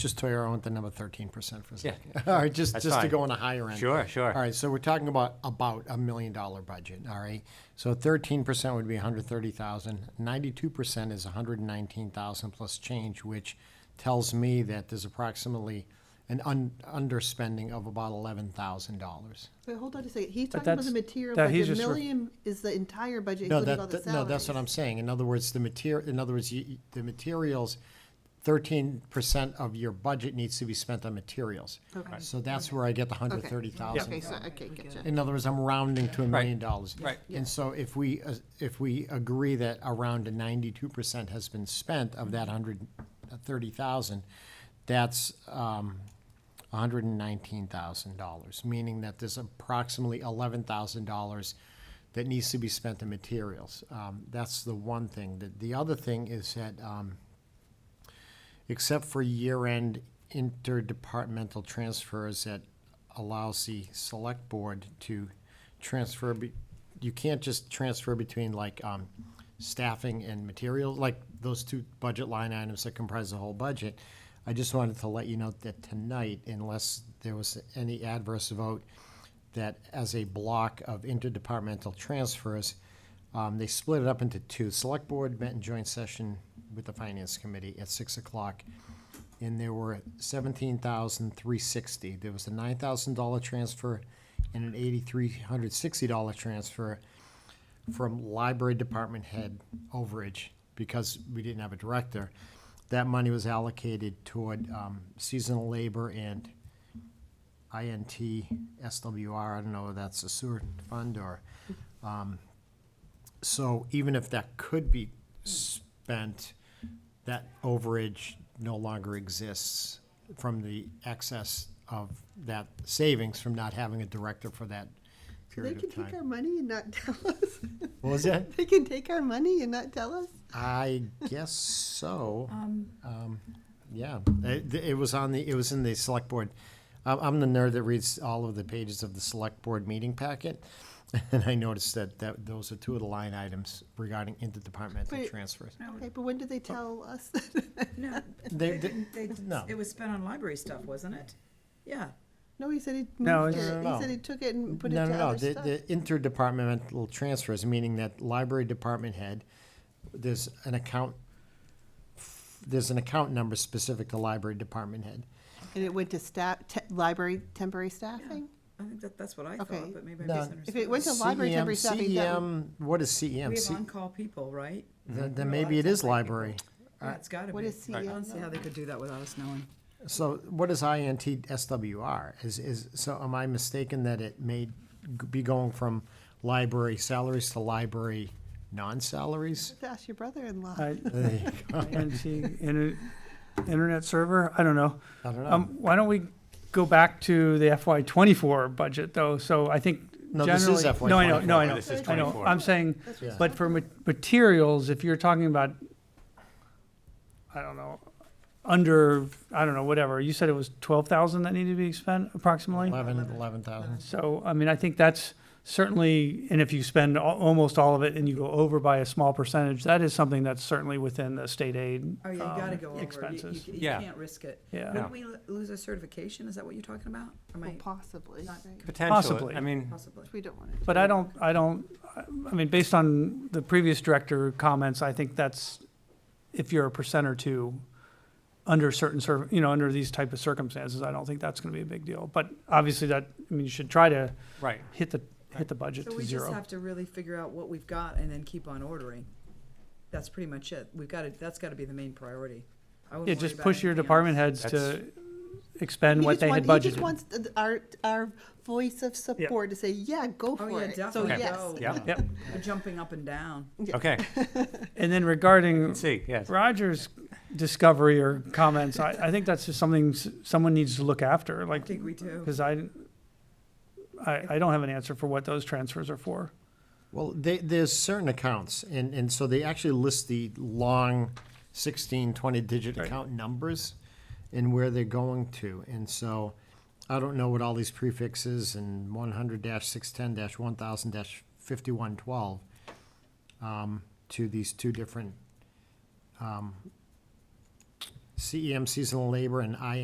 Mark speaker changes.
Speaker 1: Just Toyota went the number thirteen percent for a
Speaker 2: Yeah.
Speaker 1: second. All right, just,
Speaker 2: That's
Speaker 1: just to
Speaker 2: fine.
Speaker 1: go on the higher end.
Speaker 2: Sure, sure.
Speaker 1: All right, so we're talking about, about a million dollar budget, all right? So thirteen percent would be $130,000. 92 percent is hundred and nineteen thousand plus change, which tells me that there's approximately an un- underspending of about eleven thousand dollars.
Speaker 3: Wait, hold on a second. He's talking about the
Speaker 4: that's-
Speaker 3: material
Speaker 4: that he's
Speaker 3: budget.
Speaker 4: just re-
Speaker 3: Million is the entire budget,
Speaker 1: No,
Speaker 3: including all
Speaker 1: that,
Speaker 3: the
Speaker 1: that-
Speaker 3: salaries.
Speaker 1: no, that's what I'm saying. In other words, the material, in other words, you- you- the materials, thirteen percent of your budget needs to be spent on materials.
Speaker 3: Okay.
Speaker 1: So that's where I get the hundred
Speaker 3: Okay.
Speaker 1: thirty
Speaker 3: Okay,
Speaker 1: thousand.
Speaker 3: so, okay, gotcha.
Speaker 1: In other words, I'm rounding to a million
Speaker 2: Right.
Speaker 1: dollars.
Speaker 2: Right.
Speaker 1: And so if we, uh, if we agree that around ninety-two percent has been spent of that hundred uh, thirty thousand, that's, um, hundred and nineteen thousand dollars, meaning that there's approximately eleven thousand dollars that needs to be spent in materials. Um, that's the one thing. The, the other thing is that, um, except for year-end interdepartmental transfers that allows the select board to transfer, be- you can't just transfer between like um, staffing and materials, like those two budget line items that comprise the whole budget. I just wanted to let you know that tonight, unless there was any adverse vote, that as a block of interdepartmental transfers, um, they split it up into two. Select Board met in joint session with the Finance Committee at six o'clock. And there were seventeen thousand three sixty. There was a nine thousand dollar transfer and an eighty-three hundred sixty dollar transfer from library department head overage because we didn't have a director. That money was allocated toward, um, seasonal labor and INT, SWR, I don't know if that's a sewer fund or, um, so even if that could be spent, that overage no longer exists from the excess of that savings from not having a director for that
Speaker 3: They
Speaker 1: period
Speaker 3: can
Speaker 1: of
Speaker 3: take our
Speaker 1: time.
Speaker 3: money and not tell us.
Speaker 1: What was that?
Speaker 3: They can take our money and not tell us?
Speaker 1: I guess so. Um, Yeah, it, it was on the, it was in the select board. I'm, I'm the nerd that reads all of the pages of the select board meeting packet. And I noticed that, that those are two of the line items regarding interdepartmental
Speaker 3: Wait.
Speaker 1: transfers.
Speaker 3: Okay, but when do they tell us?
Speaker 5: No,
Speaker 1: They-
Speaker 5: they
Speaker 1: they-
Speaker 5: didn't- they-
Speaker 1: no.
Speaker 5: it was spent on library stuff, wasn't it? Yeah,
Speaker 3: No, he said he
Speaker 4: No,
Speaker 3: moved
Speaker 4: it's-
Speaker 3: it.
Speaker 1: No,
Speaker 3: He
Speaker 1: no.
Speaker 3: said he took it and put it to
Speaker 1: No, no, no,
Speaker 3: other
Speaker 1: the,
Speaker 3: stuff.
Speaker 1: the interdepartmental transfers, meaning that library department head, there's an account, there's an account number specific to library department head.
Speaker 3: And it went to staff, te- library temporary staffing?
Speaker 5: I think that, that's what I
Speaker 3: Okay.
Speaker 5: thought, but maybe I
Speaker 1: No.
Speaker 3: If it
Speaker 5: misunderstood.
Speaker 3: went to library
Speaker 1: CEM
Speaker 3: temporary staffing, that would-
Speaker 1: CEM, E what is
Speaker 5: We
Speaker 1: CEM?
Speaker 5: have
Speaker 1: C-
Speaker 5: on-call people, right?
Speaker 1: Then,
Speaker 5: Well,
Speaker 1: then maybe it
Speaker 5: that's
Speaker 1: is
Speaker 5: not like people.
Speaker 1: library.
Speaker 5: Yeah, it's gotta be.
Speaker 3: what is
Speaker 5: I
Speaker 3: CEM?
Speaker 5: don't see how they could do that without us knowing.
Speaker 1: So what is INT SWR? Is, is, so am I mistaken that it may g- be going from library salaries to library non-salaries?
Speaker 3: Just Ask your brother-in-law.
Speaker 4: I-
Speaker 1: There you go.
Speaker 4: And she, inter- internet server, I don't know.
Speaker 1: I don't know.
Speaker 4: Um, why don't we go back to the FY twenty-four budget though? So I think
Speaker 1: No, this is
Speaker 4: generally-
Speaker 1: FY
Speaker 4: No, I know, no,
Speaker 2: 24.
Speaker 4: I know.
Speaker 2: This is
Speaker 4: I know.
Speaker 2: 24.
Speaker 4: I'm saying,
Speaker 3: That's
Speaker 1: Yeah.
Speaker 4: but for ma- materials, if you're talking about, I don't know, under, I don't know, whatever, you said it was twelve thousand that needed to be spent approximately?
Speaker 1: Eleven, eleven thousand.
Speaker 4: So, I mean, I think that's certainly, and if you spend al- almost all of it and you go over by a small percentage, that is something that's certainly within the state aid.
Speaker 5: Oh, yeah, you gotta
Speaker 4: um,
Speaker 5: go over. You-
Speaker 4: Expenses.
Speaker 5: You, you
Speaker 2: Yeah.
Speaker 5: can't risk it.
Speaker 4: Yeah.
Speaker 5: Wouldn't we lo- lose a certification? Is that what you're talking about? Or
Speaker 3: Well,
Speaker 5: might,
Speaker 3: possibly,
Speaker 5: Not-
Speaker 3: right.
Speaker 2: Potentially.
Speaker 4: Possibly.
Speaker 2: I mean,
Speaker 5: possibly.
Speaker 3: We don't want to.
Speaker 4: But I don't, I don't, I I mean, based on the previous director comments, I think that's, if you're a percent or two under certain, cir- you know, under these type of circumstances, I don't think that's gonna be a big deal. But obviously that, I mean, you should try to
Speaker 2: right.
Speaker 4: hit the, hit the budget
Speaker 5: So
Speaker 4: to
Speaker 5: we just
Speaker 4: zero.
Speaker 5: have to really figure out what we've got and then keep on ordering. That's pretty much it. We've gotta, that's gotta be the main priority. I wouldn't
Speaker 4: Yeah,
Speaker 5: worry
Speaker 4: just
Speaker 5: about
Speaker 4: push your
Speaker 5: anything else.
Speaker 4: department heads
Speaker 2: That's-
Speaker 4: to expend
Speaker 3: He
Speaker 4: what
Speaker 3: just
Speaker 4: they
Speaker 3: want-
Speaker 4: had
Speaker 3: He
Speaker 4: budgeted.
Speaker 3: just wants th- our, our voice of support to say, yeah, go
Speaker 5: Oh,
Speaker 3: for
Speaker 5: yeah,
Speaker 3: it. So,
Speaker 5: definitely.
Speaker 3: yes.
Speaker 5: Go.
Speaker 2: Yeah.
Speaker 4: Yep.
Speaker 5: We're jumping up and down.
Speaker 2: Okay.
Speaker 4: And then regarding
Speaker 2: See, yes.
Speaker 4: Roger's discovery or comments, I, I think that's just something s- someone needs to look after,
Speaker 5: I
Speaker 4: like,
Speaker 5: think we do.
Speaker 4: because I, I, I don't have an answer for what those transfers are for.
Speaker 1: Well, they, there's certain accounts, and, and so they actually list the long 16, 20-digit
Speaker 4: Right.
Speaker 1: account numbers and where they're going to. And so I don't know what all these prefixes and 100-610-1000-5112 um, to these two different um, CEM seasonal labor and I